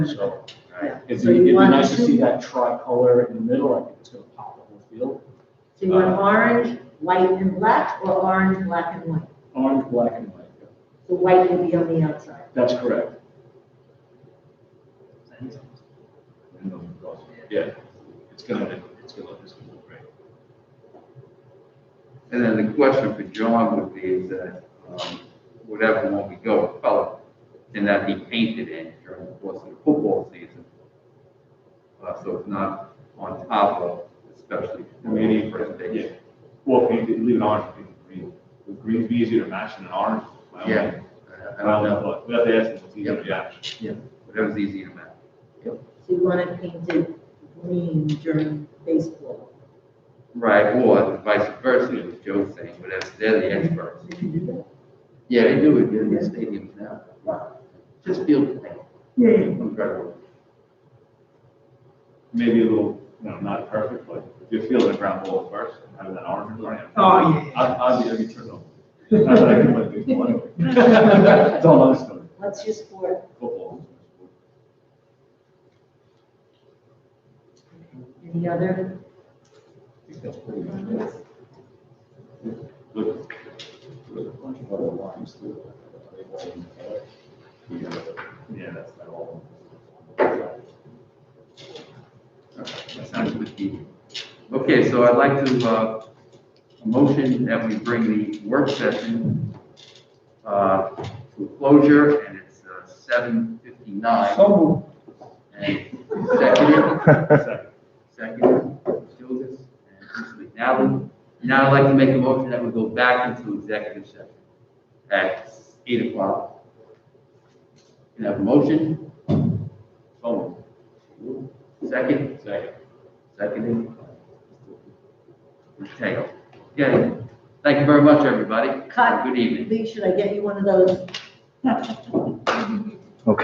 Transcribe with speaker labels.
Speaker 1: So
Speaker 2: Yeah.
Speaker 1: it'd
Speaker 2: So
Speaker 1: be,
Speaker 2: you
Speaker 1: it'd be
Speaker 2: want
Speaker 1: nice to
Speaker 2: to-
Speaker 1: see that tricolor in the middle. I think it's gonna pop the whole field.
Speaker 2: So you
Speaker 1: uh,
Speaker 2: want orange, white and black, or orange, black and white?
Speaker 1: Orange, black and white.
Speaker 2: The white will be on the outside.
Speaker 1: That's correct. Yeah, it's gonna, it's gonna, it's gonna look great.
Speaker 3: And then the question for John would be is that, um, whatever one we go with color, and that be painted in during the course of the football season. Uh, so it's not on top of, especially.
Speaker 4: Maybe,
Speaker 3: first
Speaker 4: yeah,
Speaker 3: day.
Speaker 4: well, paint it, leave it orange, paint it green. Would green be easier to match than an orange? I don't
Speaker 3: Yeah.
Speaker 4: know.
Speaker 3: I
Speaker 4: I don't
Speaker 3: don't know,
Speaker 4: know, we have to ask them, it's easier to match.
Speaker 3: whatever's easy to match.
Speaker 2: So you want it painted green during baseball.
Speaker 3: Right, or vice versa, as Joe's saying, but that's, they're the experts.
Speaker 2: You can do that.
Speaker 3: Yeah, they do it in the stadiums now. Just field paint.
Speaker 2: Yeah.
Speaker 3: Incredible.
Speaker 4: Maybe a little, you know, not perfect, but if you're feeling the ground ball first, and having that orange in front of you.
Speaker 2: Oh, yeah.
Speaker 4: I'd, I'd be, I'd be turned on. Not that I can play baseball anyway. It's all other stuff,
Speaker 2: What's your sport?
Speaker 4: football.
Speaker 2: Any other?
Speaker 1: I think that's pretty much it.
Speaker 4: Look,
Speaker 1: There's a bunch of other lines too.
Speaker 4: Yeah, that's not all.
Speaker 3: That sounds good to you. Okay, so I'd like to, uh, a motion that we bring the work session, uh, to a closure, and it's uh, seven fifty-nine.
Speaker 4: Oh.
Speaker 1: So
Speaker 3: And seconded,
Speaker 4: Second.
Speaker 3: seconded, Childers and Mr. McNally. Now I'd like to make a motion that we go back into executive session at eight o'clock. Can I have a motion?
Speaker 4: So
Speaker 3: Second?
Speaker 4: moved. Second.
Speaker 3: Seconded. Mr. Tagle. Okay, thank you very much, everybody.
Speaker 2: Cut.
Speaker 3: Good evening.
Speaker 2: Lee, should I get you one of those?